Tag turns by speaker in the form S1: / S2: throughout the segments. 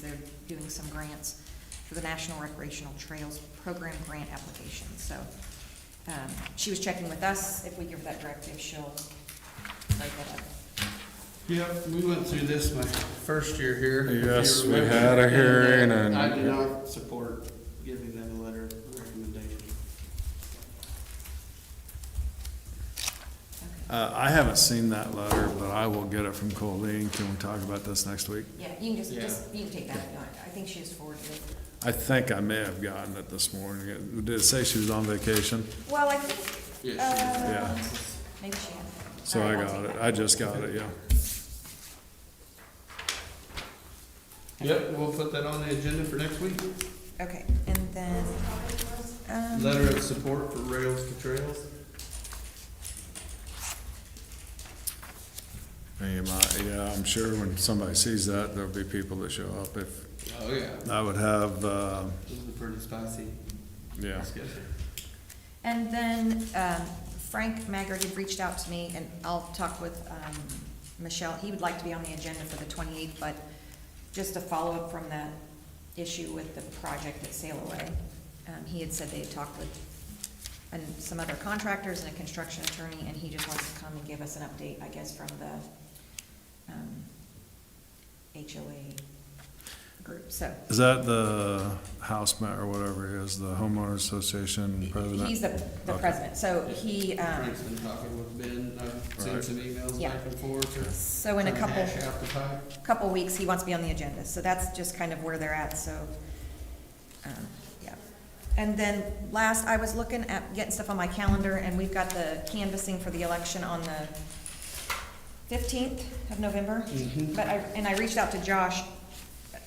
S1: They're doing some grants for the National Recreational Trails Program grant application. So um, she was checking with us. If we give her that directive, she'll write that up.
S2: Yeah, we went through this my first year here. if you
S3: Yes, we
S2: remember.
S3: had a
S2: And, uh,
S3: hearing and-
S2: I do not support giving them a letter of recommendation.
S1: Okay.
S3: Uh, I haven't seen that letter, but I will get it from Colleen. Can we talk about this next week?
S1: Yeah, you can just,
S2: Yeah.
S1: just, you can take that if you want. I think she has forwarded it.
S3: I think I may have gotten it this morning. It- Did it say she was on vacation?
S1: Well, I think,
S2: Yes, she
S1: uh,
S3: Yeah.
S1: maybe she has.
S3: So
S1: All
S3: I
S1: right, I'll
S3: got
S1: take
S3: it.
S1: that.
S3: I just got it, yeah.
S2: Yep, we'll put that on the agenda for next week.
S1: Uh-huh. Okay, and then, um.
S2: Letter of support for Rails to Trails.
S3: You might- Yeah, I'm sure when somebody sees that, there'll be people that show up. If,
S2: Oh, yeah.
S3: I would have, uh,
S2: This is a pretty spicy
S3: yeah.
S2: discussion.
S1: And then um, Frank Maggard had reached out to me, and I'll talk with um, Michelle. He would like to be on the agenda for the 28th, but just a follow-up from that issue with the project at Sail Away. Um, He had said they had talked with and some other contractors and a construction attorney, and he just wants to come and give us an update, I guess, from the um, HOA group, so.
S3: Is that the house ma, or whatever he is, the homeowners association president?
S1: He's the the
S3: Okay.
S1: president, so he. um,
S2: Frank's been talking with Ben, I've sent
S3: Right.
S2: some emails
S1: Yeah.
S2: back and forth.
S1: So in a couple,
S2: Hash out the pipe.
S1: couple weeks, he wants to be on the agenda, so that's just kind of where they're at, so, um, yeah. And then last, I was looking at getting stuff on my calendar, and we've got the canvassing for the election on the fifteenth of November.
S2: Mhm.
S1: But I, and I reached out to Josh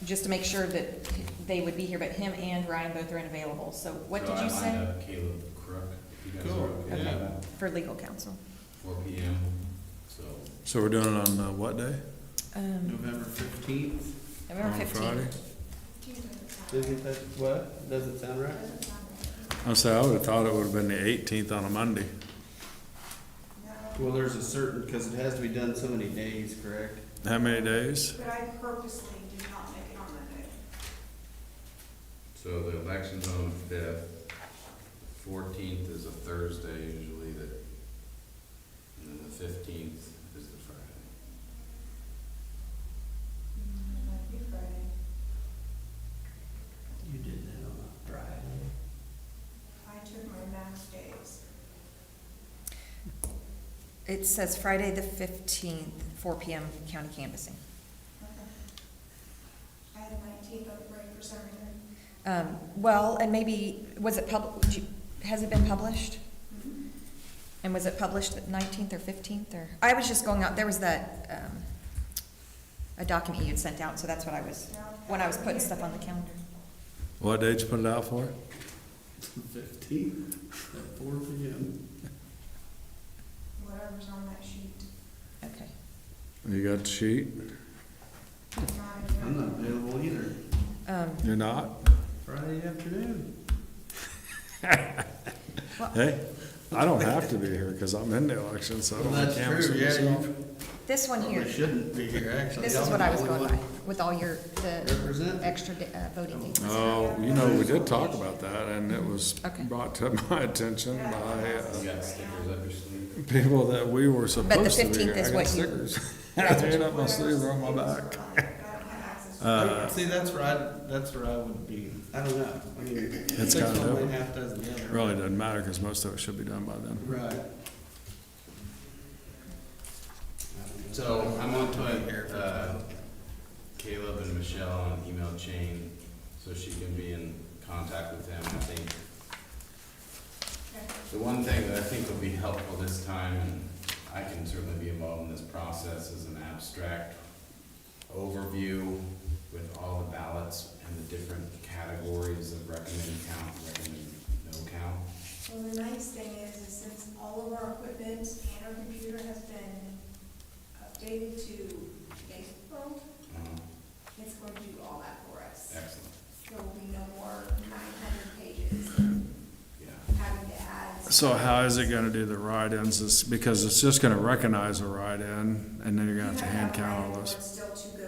S1: just to make sure that they would be here, but him and Ryan both are unavailable, so what
S4: So
S1: did you
S4: I lined
S1: say?
S4: up Caleb Crook, if you guys
S2: Cool,
S4: are okay with
S2: yeah.
S4: that,
S1: For legal counsel.
S4: four P M, so.
S3: So we're doing it on uh, what day?
S1: Um,
S2: November fifteenth,
S1: November
S3: On Friday?
S1: fifteenth.
S2: isn't that, what? Doesn't sound right?
S3: I say, I would've thought it would've been the eighteenth on a Monday.
S2: Well, there's a certain, cause it has to be done so many days, correct?
S3: How many days?
S5: But I purposely did not make it on Monday.
S4: So the election's on the fifth, fourteenth is a Thursday usually that, and then the fifteenth is the Friday.
S5: It might be Friday.
S2: You did that on a Friday.
S5: I took my max days.
S1: It says Friday the fifteenth, four P M, county canvassing.
S5: I had my teeth up right for some reason.
S1: Um, well, and maybe, was it pub, did you- has it been published?
S5: Mm-hmm.
S1: And was it published the nineteenth or fifteenth or, I was just going out, there was that, um, a document you had sent out, so that's what I was, when I was putting stuff on the calendar.
S3: What date you put it out for?
S2: Fifteenth at four P M.
S5: Whatever's on that sheet.
S1: Okay.
S3: You got the sheet?
S2: I'm not available either,
S1: Um,
S3: You're not?
S2: Friday afternoon.
S3: Hey, I don't have to be here because I'm in the election, so I
S2: Well,
S3: don't have
S2: that's
S3: cameras
S2: true, yeah,
S3: myself.
S2: you
S1: this one
S2: probably
S1: here,
S2: shouldn't be here, actually.
S1: this is
S2: I'm
S1: what I was
S2: the only
S1: going by,
S2: one
S1: with all your, the
S2: Represent.
S1: extra da- uh, voting dates.
S3: Oh, you know, we did talk about that and it was
S1: Okay.
S3: brought to my attention by
S4: You
S3: uh,
S4: got stickers up your sleeve?
S3: people that we were supposed to be
S1: 15th
S3: here.
S1: is
S3: I
S1: what
S3: got
S1: you-
S3: stickers. I made up my sleeves they're on my back. Uh,
S2: See, that's where I, that's where I would be, I don't know, I mean,
S3: It's
S2: six
S3: kinda
S2: one way,
S3: dope.
S2: half dozen the other.
S3: Really doesn't matter because most of it should be done by then.
S2: Right.
S4: So I'm gonna put, uh,
S2: Here.
S4: Caleb and Michelle on an email chain, so she can be in contact with them, I think. The one thing that I think will be helpful this time, and I can certainly be involved in this process, is an abstract overview with all the ballots and the different categories of recommended count, recommended no count.
S5: Well, the nice thing is, is since all of our equipment and our computer has been updated to today's world,
S4: Uh,
S5: it's going to do all that for us.
S4: Excellent,
S5: There will be no more nine hundred pages
S4: yeah.
S5: having to add.
S3: So how is it gonna do the write-ins? It's because it's just gonna recognize a write-in and then you're gonna have to hand count all
S5: You
S3: those.
S5: have to have a write-in, but it's still too